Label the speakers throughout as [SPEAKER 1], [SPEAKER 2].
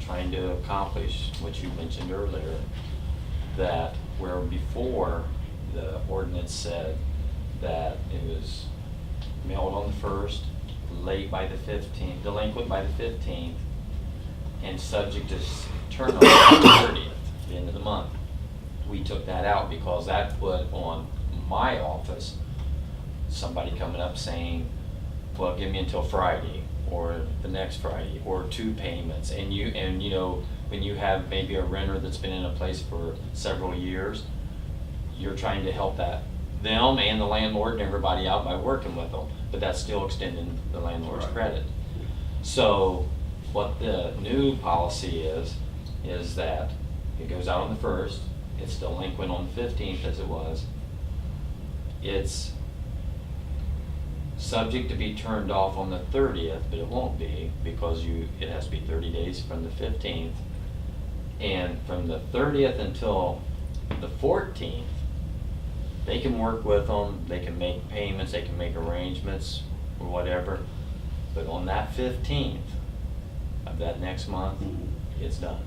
[SPEAKER 1] trying to accomplish what you mentioned earlier, that where before the ordinance said that it was mailed on the first, late by the fifteenth, delinquent by the fifteenth, and subject to s- turnover on the thirtieth, the end of the month. We took that out because that put on my office, somebody coming up saying, well, give me until Friday, or the next Friday, or two payments, and you, and you know, when you have maybe a renter that's been in a place for several years, you're trying to help that, them and the landlord and everybody out by working with them, but that's still extending the landlord's
[SPEAKER 2] Right.
[SPEAKER 1] credit. So what the new policy is, is that it goes out on the first, it's delinquent on the fifteenth as it was. It's subject to be turned off on the thirtieth, but it won't be because you, it has to be thirty days from the fifteenth. And from the thirtieth until the fourteenth, they can work with them, they can make payments, they can make arrangements or whatever. But on that fifteenth of that next month, it's done.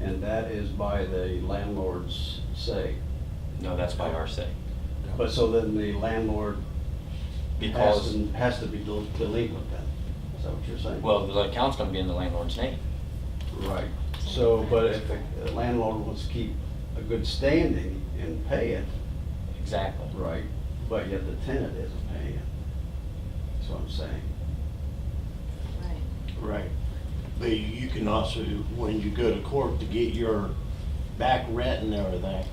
[SPEAKER 2] And that is by the landlord's say.
[SPEAKER 1] No, that's by our say.
[SPEAKER 2] But so then the landlord has
[SPEAKER 1] Because,
[SPEAKER 2] to, has to be del- delinquent then, is that what you're saying?
[SPEAKER 1] well, the account's gonna be in the landlord's name.
[SPEAKER 2] Right, so, but if the landlord wants to keep a good standing and pay it.
[SPEAKER 1] Exactly.
[SPEAKER 2] Right. But yet the tenant isn't paying it, that's what I'm saying.
[SPEAKER 3] Right.
[SPEAKER 4] Right. But you can also, when you go to court to get your back rent and everything,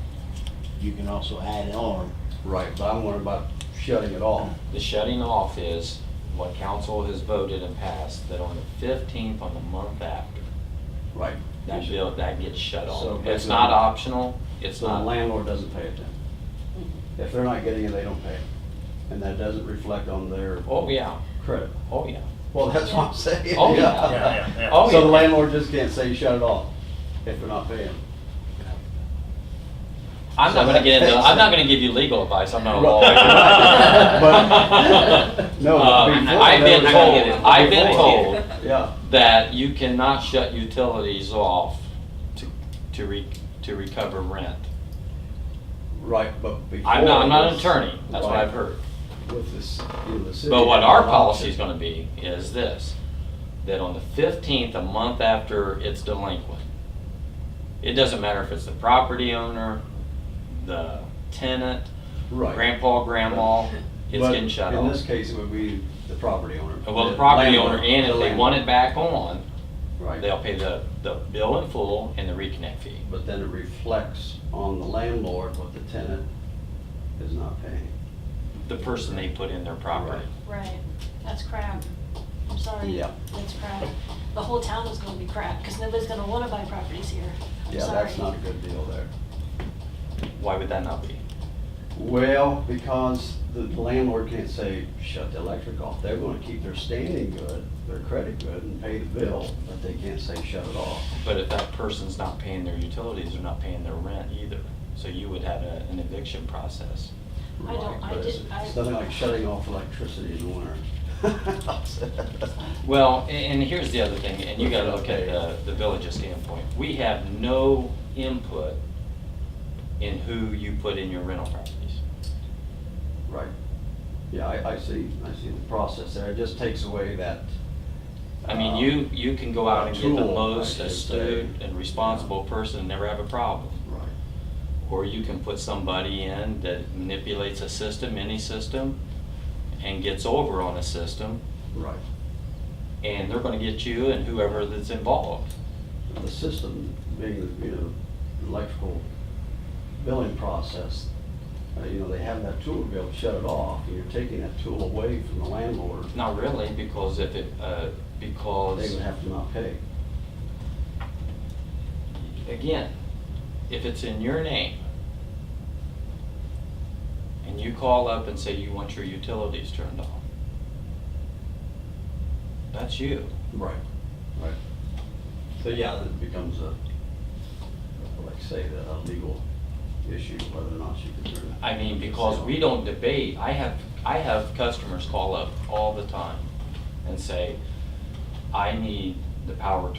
[SPEAKER 4] you can also add on.
[SPEAKER 2] Right. But I'm worried about shutting it off.
[SPEAKER 1] The shutting off is what council has voted and passed, that on the fifteenth, on the month after,
[SPEAKER 2] Right.
[SPEAKER 1] that bill, that gets shut
[SPEAKER 2] So,
[SPEAKER 1] off.
[SPEAKER 2] but
[SPEAKER 1] It's
[SPEAKER 2] the-
[SPEAKER 1] not optional, it's
[SPEAKER 2] So the
[SPEAKER 1] not,
[SPEAKER 2] landlord doesn't pay it then? If they're not getting it, they don't pay it. And that doesn't reflect on their
[SPEAKER 1] oh, yeah,
[SPEAKER 2] credit.
[SPEAKER 1] oh, yeah.
[SPEAKER 2] Well, that's what I'm saying.
[SPEAKER 1] Oh, yeah.
[SPEAKER 5] Yeah, yeah, yeah.
[SPEAKER 1] Oh,
[SPEAKER 2] So the
[SPEAKER 1] yeah.
[SPEAKER 2] landlord just can't say shut it off if they're not paying.
[SPEAKER 1] I'm not
[SPEAKER 2] So
[SPEAKER 1] gonna get into,
[SPEAKER 2] that-
[SPEAKER 1] I'm not gonna give you legal advice, I'm not a lawyer.
[SPEAKER 2] But- no,
[SPEAKER 1] Uh,
[SPEAKER 2] but before
[SPEAKER 1] I've been
[SPEAKER 2] there was-
[SPEAKER 1] told, I've been told
[SPEAKER 2] Yeah,
[SPEAKER 1] that you cannot shut utilities off to, to re, to recover rent.
[SPEAKER 2] right, but before.
[SPEAKER 1] I'm not, I'm not an
[SPEAKER 2] this-
[SPEAKER 1] attorney, that's what
[SPEAKER 2] right,
[SPEAKER 1] I've heard.
[SPEAKER 2] With this, you know, the city.
[SPEAKER 1] But what our policy is
[SPEAKER 2] to
[SPEAKER 1] gonna be is this, that on the fifteenth, a month after it's delinquent, it doesn't matter if it's the property owner, the tenant,
[SPEAKER 2] Right.
[SPEAKER 1] grandpa, grandma, it's
[SPEAKER 2] But
[SPEAKER 1] getting shut
[SPEAKER 2] In this
[SPEAKER 1] off.
[SPEAKER 2] case, it would be the property owner.
[SPEAKER 1] Well, the property owner,
[SPEAKER 2] landlord,
[SPEAKER 1] and if
[SPEAKER 2] the
[SPEAKER 1] they
[SPEAKER 2] landlord.
[SPEAKER 1] want it back on,
[SPEAKER 2] Right,
[SPEAKER 1] they'll pay the, the bill in full and the reconnect fee.
[SPEAKER 2] but then it reflects on the landlord what the tenant is not paying.
[SPEAKER 1] The person they put in their property.
[SPEAKER 3] Right, that's crap. I'm sorry.
[SPEAKER 2] Yeah.
[SPEAKER 3] That's crap. The whole town is gonna be crap, because nobody's gonna wanna buy properties here. I'm
[SPEAKER 2] Yeah,
[SPEAKER 3] sorry.
[SPEAKER 2] that's not a good deal there.
[SPEAKER 1] Why would that not be?
[SPEAKER 2] Well, because the landlord can't say, shut the electric off. They're gonna keep their standing good, their credit good, and pay the bill, but they can't say, shut it off.
[SPEAKER 1] But if that person's not paying their utilities, they're not paying their rent either. So you would have a- an eviction process.
[SPEAKER 3] I don't- I
[SPEAKER 2] Right, but
[SPEAKER 3] did-
[SPEAKER 2] it's-
[SPEAKER 3] I-
[SPEAKER 2] It's nothing like shutting off electricity in the winter.
[SPEAKER 1] Well, a- and here's the other thing, and you gotta look at the, the village's standpoint. We have no input in who you put in your rental properties.
[SPEAKER 2] Right. Yeah, I, I see, I see the process there. It just takes away that. uh,
[SPEAKER 1] I mean, you, you can go out and get the
[SPEAKER 2] Tool, I
[SPEAKER 1] most
[SPEAKER 2] should
[SPEAKER 1] astute
[SPEAKER 2] say.
[SPEAKER 1] and responsible person and never have a problem.
[SPEAKER 2] Right.
[SPEAKER 1] Or you can put somebody in that manipulates a system, any system, and gets over on a system,
[SPEAKER 2] Right.
[SPEAKER 1] and they're gonna get you and whoever that's involved.
[SPEAKER 2] The system being, the you know, electrical billing process, uh, you know, they have that tool to be able to shut it off. and You're taking that tool away from the landlord.
[SPEAKER 1] Not really, because if it, uh,
[SPEAKER 2] They
[SPEAKER 1] because,
[SPEAKER 2] would have to not pay.
[SPEAKER 1] again, if it's in your name, and you call up and say you want your utilities turned off, that's you.
[SPEAKER 2] Right. Right. So, yeah, it becomes a, like say, the- a legal issue, whether or not you can turn it.
[SPEAKER 1] I mean, because we don't debate, I have, I have customers call up all the time and say, I need the power